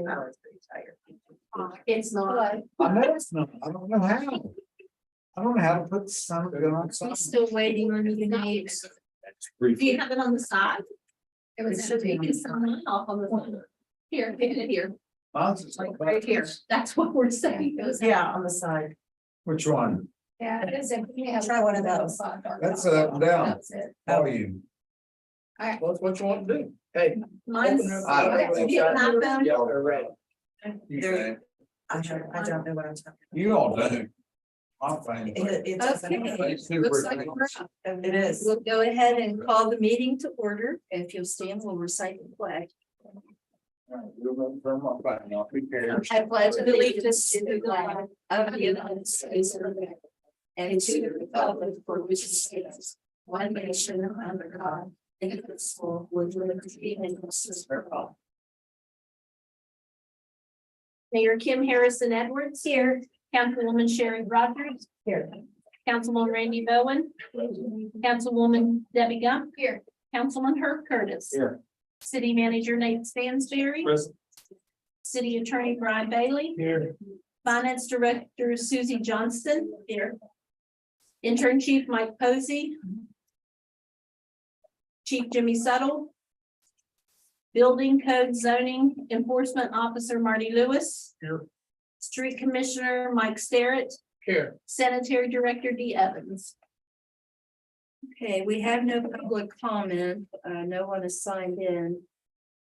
Uh, Uh, It's not, I know it's not, I don't know how. I don't know how to put something on we're something. still waiting on you to name. Do you have it on the side? It was, should be on the it's on off on the phone. Here, get it here, Mine's is like right here. That's what we're saying. It was- Yeah, on the side. Which one? Yeah, it is. Try one of those. That's a up and uh, down. That's it. Volume. Alright. What's what you want to do? Hey. Mine's. I don't That's think you so. and I found- Y'all are right. You There- think? I don't, I don't know what I'm talking You all do. I'm fine. about. It- it's- Okay. It's super Looks like we're nice. up. It is. We'll go ahead and call the meeting to order. If you'll stand, we'll recite the pledge. Alright, we'll run from up right now. Be careful. I pledge allegiance to the flag of the United States of America. And to the republic for which it stands, one nation under God, indivisible, with liberty and justice for all. Mayor Kim Harrison Edwards. Here. Councilwoman Sherry Rogers. Here. Councilman Randy Bowen. Councilwoman Debbie Gump. Here. Councilman Herb Curtis. Here. City Manager Nate Stansberry. Present. City Attorney Brian Bailey, Here. Finance Director Susie Johnston here. Intern Chief Mike Posey. Chief Jimmy Settle. Building Code Zoning Enforcement Officer Marty Lewis. Here. Street Commissioner Mike Starrett, Here. Sanitary Director Dee Evans. Okay, we have no public comment, uh, no one is signed in.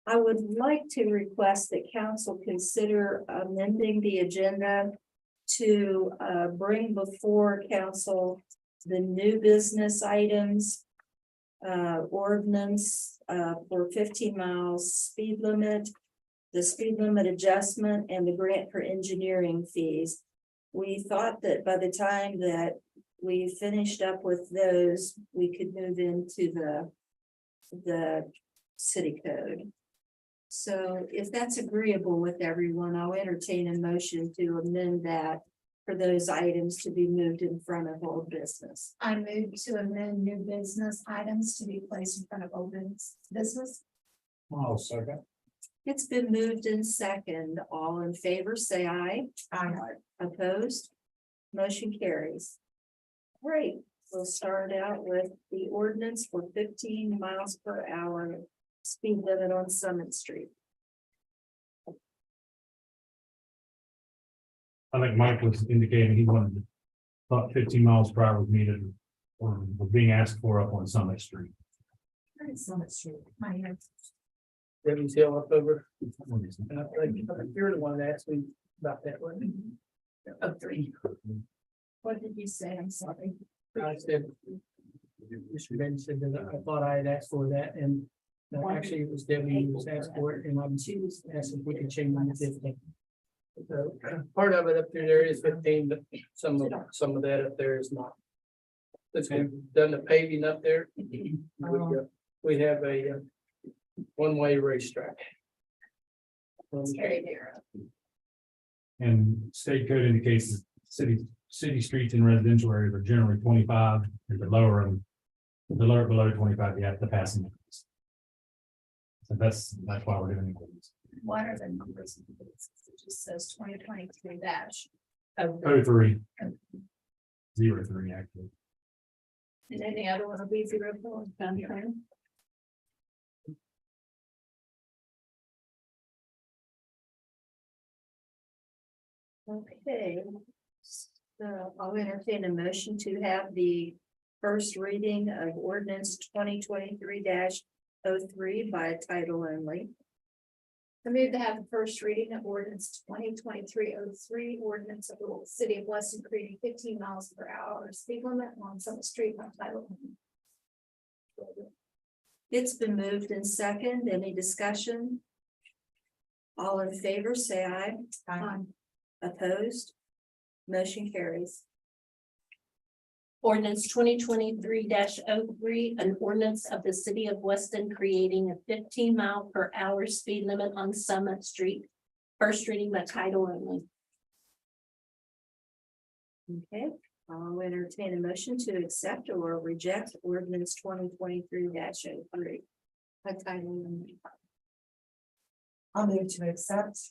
I would like to request that council consider amending the agenda to, uh, bring before council the new business items, uh, ordinance, uh, for fifteen miles speed limit, the speed limit adjustment and the grant for engineering fees. We thought that by the time that we finished up with those, we could move into the, the city code. So if that's agreeable with everyone, I'll entertain a motion to amend that for those items to be moved in front of old business. I move to amend new business items to be placed in front of open business. Oh, second. It's been moved in second. All in favor, say aye. I- Opposed? Motion carries. Great, we'll start out with the ordinance for fifteen miles per hour speed limit on Summit Street. I think Mike was indicating he wanted about fifteen miles per hour was needed or was um, being asked for up on Summit Street. My head. Debbie's Hill up over, and I think you're the one that asked me about that one. Uh, Of three. What did you say? I'm sorry. I said. Mr. Ben said that I thought I had asked for that and no, actually it was Debbie who was asked for it and I'm asked if we could change it to fifteen. So part of it up through there is fifteen, but some of, some of that up there is not. Since we've done the paving up there, we, uh, we have a uh, one-way racetrack. It's very narrow. And state code indicates that city, city streets in residential areas are generally twenty-five, if the lower and the lower below twenty-five, you have to pass them. So that's, that's why we're doing it. What are the numbers? It just says twenty twenty-three dash. of the- Oh, three. Zero three, actually. And then the other one will be zero four. Okay. So I'll entertain a motion to have the first reading of ordinance twenty twenty-three 3 by title only. I move to have the first reading of ordinance twenty twenty-three oh three, ordinance of the city of Weston creating fifteen miles per hour speed limit on Summit Street by title. only. It's been moved in second. Any discussion? All in favor, say aye. I- Opposed? Motion carries. Ordinance twenty twenty-three 3 an ordinance of the city of Weston creating a fifteen mile per hour speed limit on Summit Street. First reading by title only. Okay, I'll entertain a motion to accept or reject ordinance twenty twenty-three oh 3 By title only. I'll move to accept.